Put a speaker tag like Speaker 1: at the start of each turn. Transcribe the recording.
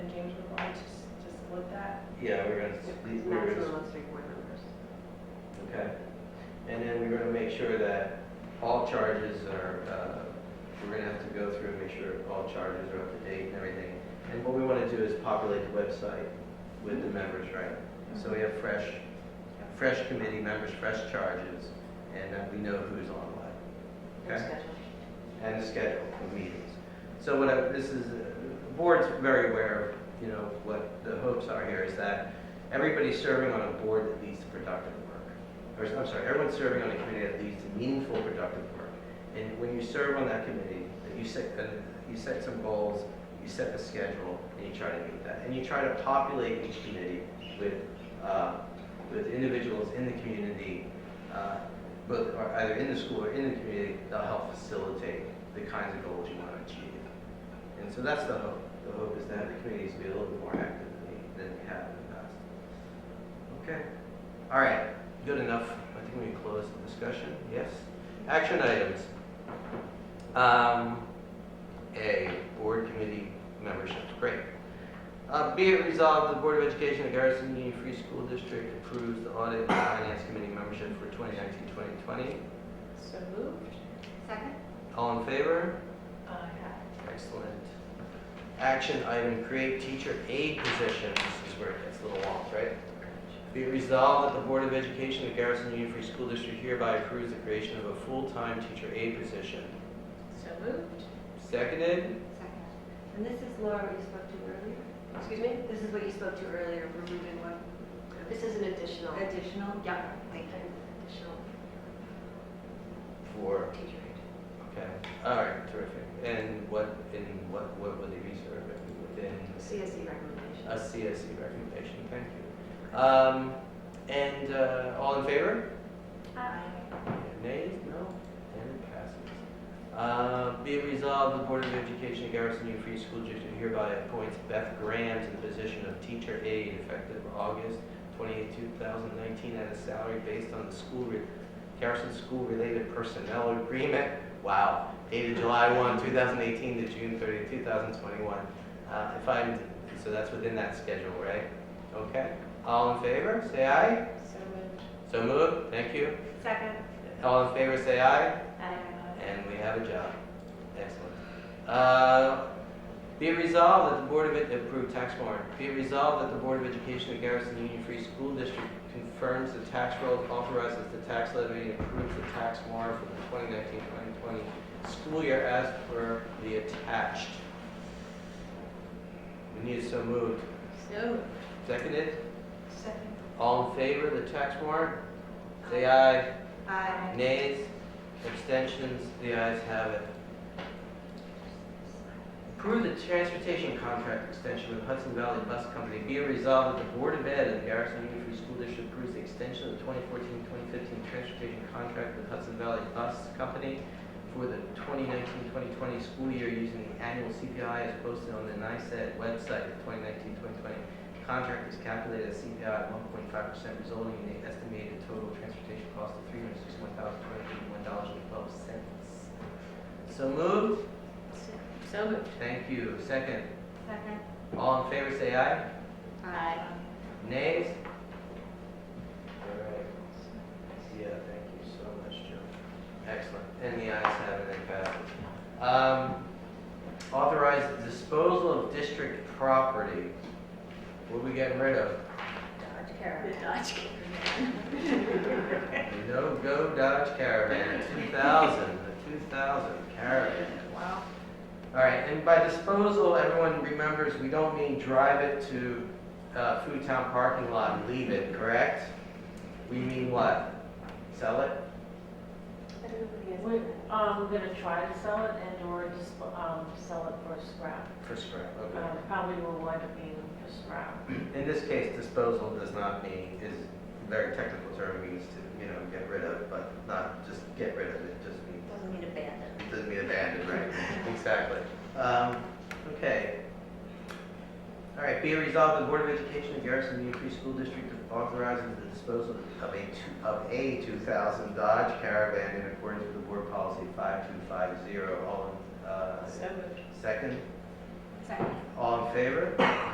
Speaker 1: looked at.
Speaker 2: Yeah, we're gonna, we
Speaker 1: It's
Speaker 2: we're gonna,
Speaker 1: maximum of three board members.
Speaker 2: okay. And then we're gonna make sure that all charges are, uh, we're gonna have to go through and make sure all charges are up to date and everything. And what we wanna do is populate the website with the members, right? So we have fresh, fresh committee members, fresh charges, and that we know who's on what.
Speaker 1: Their
Speaker 2: Okay.
Speaker 1: schedule.
Speaker 2: and the schedule of meetings. So what I, this is, uh, the board's very aware of, you know, what the hopes are here is that everybody's serving on a board that leads to productive work. Or, I'm sorry, everyone's serving on a committee that leads to meaningful, productive work. And when you serve on that committee, that you set, uh, you set some goals, you set a schedule, and you try to meet that. And you try to populate each committee with, uh, with individuals in the community, uh, both are either in the school or in the community, that'll help facilitate the kinds of goals you want to achieve. And so that's the hope. The hope is to have the committees be a little bit more active than they than they have in the past. Okay. All right. Good enough. I think we can close the discussion. Yes. Action items. Um, A, board committee membership. Great. Uh, Be it resolved, the Board of Education of Garrison Union Free School District approves the audit and finance committee membership for 2019-2020.
Speaker 1: So moved.
Speaker 3: Second?
Speaker 2: All in favor?
Speaker 1: Aye.
Speaker 2: Excellent. Action item, create teacher aid positions, this is where it gets a little long, right? Be it resolved that the Board of Education of Garrison Union Free School District hereby approves the creation of a full-time teacher aid position.
Speaker 1: So moved.
Speaker 2: Seconded?
Speaker 3: Second.
Speaker 4: And this is Laura you spoke to earlier.
Speaker 1: Excuse me?
Speaker 4: This is what you spoke to earlier, removing one
Speaker 1: This is an additional.
Speaker 4: additional.
Speaker 1: Yeah.
Speaker 4: Thank you.
Speaker 1: Additional
Speaker 2: Four.
Speaker 1: teacher aid.
Speaker 2: Okay, all right, terrific. And what, in what, what would they be serving within
Speaker 4: CSE E recommendation.
Speaker 2: a CSE recommendation? Thank you. Um, and, uh, all in favor?
Speaker 1: Uh,
Speaker 2: Nays? No? And it passes. Uh, Be it resolved, the Board of Education of Garrison Union Free School District hereby appoints Beth Graham to the position of teacher aide effective August 28, 2019, at a salary based on the school, re- Garrison School-related personnel agreement, wow, dated July 1, 2018 to June 30, 2021. Uh, If I'm, so that's within that schedule, right? Okay. All in favor, say aye.
Speaker 1: So moved.
Speaker 2: So moved, thank you.
Speaker 4: Second.
Speaker 2: All in favor, say aye.
Speaker 1: Aye.
Speaker 2: And we have a job. Excellent. Uh, Be it resolved that the Board of, Ed- approved tax warrant. Be it resolved that the Board of Education of Garrison Union Free School District confirms the tax roll, authorizes the tax levy, and approves the tax warrant for the 2019-2020 school year as per the attached. We need so moved.
Speaker 1: So moved.
Speaker 2: Seconded?
Speaker 1: Second.
Speaker 2: All in favor of the tax warrant? Say aye.
Speaker 4: Aye.
Speaker 2: Nays, abstentions, the ayes have it. Approve the transportation contract extension with Hudson Valley Bus Company. Be it resolved that the Board of Ed of the Garrison Union Free School District approves the extension of the 2014-2015 transportation contract with Hudson Valley Bus Company for the 2019-2020 school year using the annual CPI as posted on the NICEAD website of 2019-2020. Contract is calculated at CPI at 1.5%, resulting in an estimated total transportation cost of $361,281.12. So moved.
Speaker 1: So moved.
Speaker 2: Thank you. Second.
Speaker 4: Second.
Speaker 2: All in favor, say aye.
Speaker 4: Aye.
Speaker 2: Nays? All right. Yeah, thank you so much, Joe. Excellent. And the ayes have it, it passes. Um, Authorize the disposal of district property. What are we getting rid of?
Speaker 4: Dodge
Speaker 1: The
Speaker 4: Caravan.
Speaker 1: Dodge
Speaker 2: No Go Dodge Caravan, 2000, the 2000 Caravan.
Speaker 1: Wow.
Speaker 2: All right, and by disposal, everyone remembers, we don't mean drive it to uh, Food Town parking lot and leave it, correct? We mean what? Sell it?
Speaker 4: I don't know if you guys
Speaker 5: We're
Speaker 4: know
Speaker 5: um, gonna try to sell it and or just, um, sell it for scrap.
Speaker 2: For scrap,
Speaker 5: Um, Probably will wind up being for scrap.
Speaker 2: In this case, disposal does not mean, is a very technical term, means to, you know, get rid of, but not just get rid of it, just means,
Speaker 4: that. Doesn't mean abandoned.
Speaker 2: it doesn't mean abandoned, right? Exactly. Um, Okay. All right, be it resolved, the Board of Education of Garrison Union Free School District authorizes the disposal of a, two- of a 2000 Dodge Caravan in accordance with the Board Policy 5250. All in, uh,
Speaker 1: So moved.
Speaker 2: second?
Speaker 3: Second.
Speaker 2: All in favor?